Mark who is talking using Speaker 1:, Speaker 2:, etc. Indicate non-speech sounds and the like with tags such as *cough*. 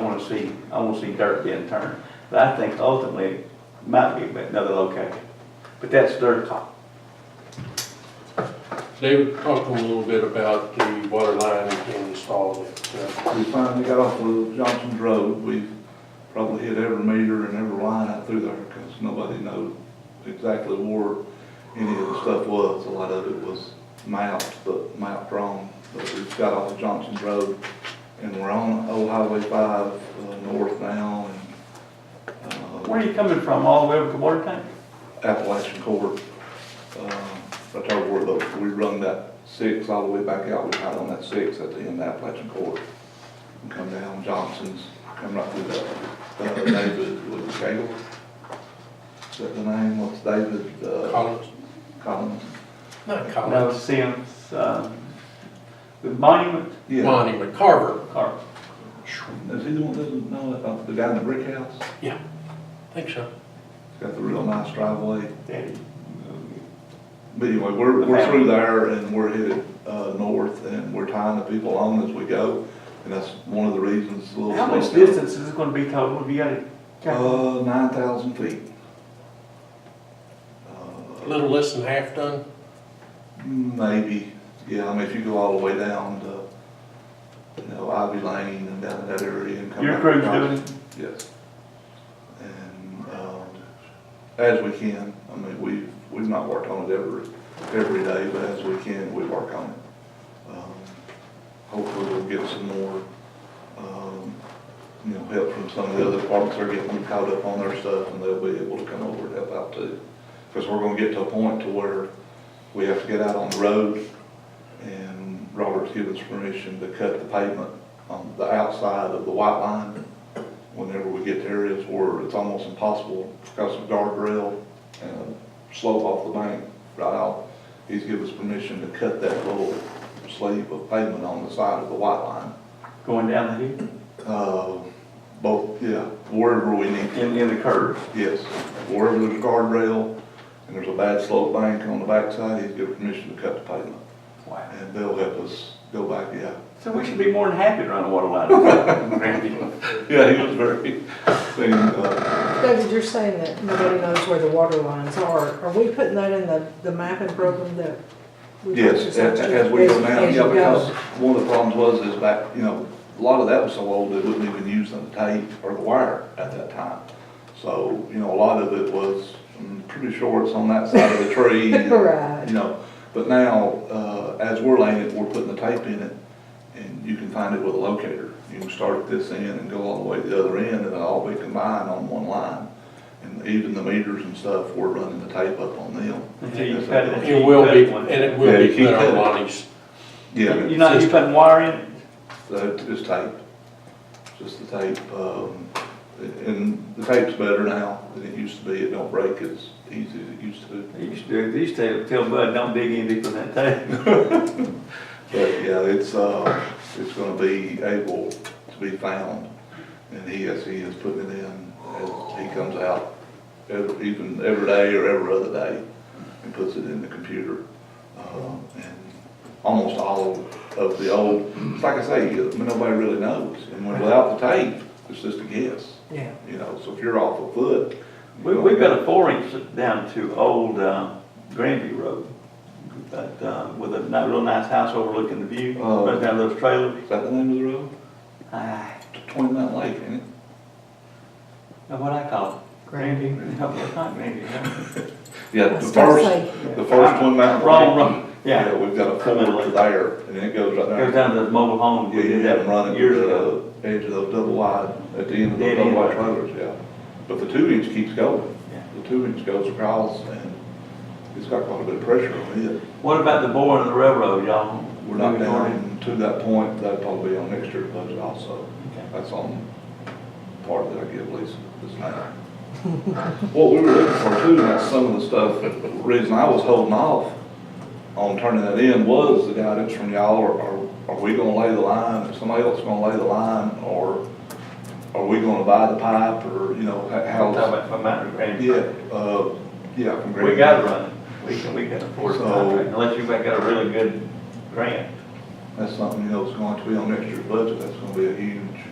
Speaker 1: wanna see, I wanna see dirt being turned. But I think ultimately, it might be another location, but that's their call.
Speaker 2: David, talk to me a little bit about the water line being installed. at, uh,
Speaker 3: We finally got off of Johnson's Road, we've probably hit every meter and every line out through there, because nobody knows exactly where any of the stuff was, a lot of it was mapped, but mapped wrong. But we've got off of Johnson's Road, and we're on Old Highway five, uh, north now, and, uh,
Speaker 1: Where are you coming from, all the way over to water tank?
Speaker 3: Appalachian Court. Um, That's our word, but we run that six all the way back out, we hide on that six at the end of Appalachian Court. And Come down Johnson's, come right through that, uh, David, was it Cagle? Is that the name, what's David, uh,
Speaker 2: Collins?
Speaker 3: Collins?
Speaker 2: Not
Speaker 1: No,
Speaker 2: Collins,
Speaker 1: Sims, um, the monument,
Speaker 3: Yeah,
Speaker 2: Monty McCarver.
Speaker 1: or,
Speaker 3: is he the one that doesn't know, that? Uh, the guy in the brick house?
Speaker 2: Yeah, I think so.
Speaker 3: He's Got the real nice driveway.
Speaker 1: Daddy,
Speaker 3: But anyway, we're, we're through there and we're headed, uh, north and we're tying the people on as we go. And that's one of the reasons. it's a little
Speaker 1: How much
Speaker 3: slow down.
Speaker 1: distance is it gonna be total, have you got it? calculated?
Speaker 3: Uh, nine thousand feet.
Speaker 2: A
Speaker 3: Uh,
Speaker 2: little less than half done.
Speaker 3: Maybe, yeah, I mean, if you go all the way down to, you know, Ivy Lane and down that area and come.
Speaker 1: Your
Speaker 3: back
Speaker 1: crew's
Speaker 3: across.
Speaker 1: doing it?
Speaker 3: Yes. And, um, as we can, I mean, we've, we've not worked on it every, every day, but as we can, we work on it. Um, Hopefully we'll get some more, um, you know, help from some of the other departments that are getting caught up on their stuff and they'll be able to come over and help out too. Because we're gonna get to a point to where we have to get out on the road and Robert's given us permission to cut the pavement on the outside of the white line whenever we get to areas where it's almost impossible because of guardrail and a slope off the bank right out, he's given us permission to cut that little sleeve of pavement on the side of the white line.
Speaker 1: Going down the hill,
Speaker 3: Uh, both, yeah, wherever we need,
Speaker 1: in, in the curve.
Speaker 3: yes, wherever there's a guardrail and there's a bad slope bank on the backside, he's given permission to cut the pavement.
Speaker 1: Wow.
Speaker 3: And they'll help us go back, yeah.
Speaker 1: So we should be more than happy to run a water line. *laughs* Randy.
Speaker 3: Yeah, he was very, thing, uh,
Speaker 4: David, you're saying that nobody knows where the water lines are. Are we putting that in the, the mapping program that? we
Speaker 3: Yes,
Speaker 4: purchased?
Speaker 3: as, as we go now,
Speaker 4: As you
Speaker 3: yeah,
Speaker 4: go.
Speaker 3: because one of the problems was is back, you know, a lot of that was so old, they wouldn't even use the tape or the wire at that time. So, you know, a lot of it was, I'm pretty sure it's on that side of the *laughs* tree. and,
Speaker 4: *laughs* Right.
Speaker 3: You know, but now, uh, as we're laying it, we're putting the tape in it, and you can find it with a locator. You can start at this end and go all the way to the other end, and it'll all be combined on one line. And even the meters and stuff, we're running the tape up on them.
Speaker 1: Until you cut it.
Speaker 2: It will be, and it
Speaker 3: Yeah,
Speaker 2: will
Speaker 3: you
Speaker 2: be
Speaker 3: keep
Speaker 2: put on
Speaker 3: cutting.
Speaker 2: Lonnie's.
Speaker 3: Yeah.
Speaker 1: You're not, you putting wire in it?
Speaker 3: So just tape, just the tape, um, and the tape's better now than it used to be, it don't break as easy as it used to.
Speaker 1: They used to, they used to tell Bud, don't dig any deeper than that tape.
Speaker 3: But yeah, it's, uh, it's gonna be able to be found, and he, yes, he is putting it in as he comes out, ev- even every day or every other day, and puts it in the computer. Um, And almost all of the old, it's like I say, you- nobody really knows, and when- without the tape, it's just a guess.
Speaker 4: Yeah,
Speaker 3: You know, so if you're off a foot.
Speaker 1: We, we've got a four inch down to old, um, Granby Road. But, um, with a ni- real nice house overlooking the view,
Speaker 3: Oh.
Speaker 1: right down those trailers.
Speaker 3: Is that the name of the road?
Speaker 1: Ah,
Speaker 3: Twin Mountain Lake, ain't it?
Speaker 1: what I call it?
Speaker 4: Granby.
Speaker 1: *laughs* No, it's not Granby. no.
Speaker 3: Yeah,
Speaker 4: I
Speaker 3: the
Speaker 4: was gonna
Speaker 3: first,
Speaker 4: say.
Speaker 3: the first Twin Mountain.
Speaker 1: Wrong,
Speaker 3: Lake.
Speaker 1: wrong, yeah.
Speaker 3: We've got a
Speaker 1: Twin Mountain
Speaker 3: fork
Speaker 1: Lake.
Speaker 3: there, and it goes right
Speaker 1: Goes
Speaker 3: there.
Speaker 1: down to the mobile home,
Speaker 3: Yeah,
Speaker 1: we
Speaker 3: you
Speaker 1: did
Speaker 3: had them
Speaker 1: that
Speaker 3: running
Speaker 1: years
Speaker 3: to
Speaker 1: ago.
Speaker 3: the edge of those double wide, at the end of those
Speaker 1: Dead
Speaker 3: double
Speaker 1: end.
Speaker 3: wide trailers, yeah. But the two inch keeps going.
Speaker 1: Yeah.
Speaker 3: The two inch goes across, and it's got quite a bit of pressure on it.
Speaker 1: What about the boring of the railroad, y'all?
Speaker 3: We're not down to that point, that'll probably be on next year's budget also.
Speaker 1: Okay.
Speaker 3: That's on part that I give Lisa this night. What we were looking for too, that's some of the stuff, the reason I was holding off on turning that in was the guidance from y'all, or are, are we gonna lay the line, is somebody else gonna lay the line, or are we gonna buy the pipe, or, you know, h-
Speaker 1: Talking
Speaker 3: how?
Speaker 1: about from Mountain Granby.
Speaker 3: Yeah, uh, yeah, from Green.
Speaker 1: We gotta run it, we can, we can afford it,
Speaker 3: So-
Speaker 1: unless you've got a really good grant.
Speaker 3: That's something, you know, that's going to be on next year's budget, that's gonna be a huge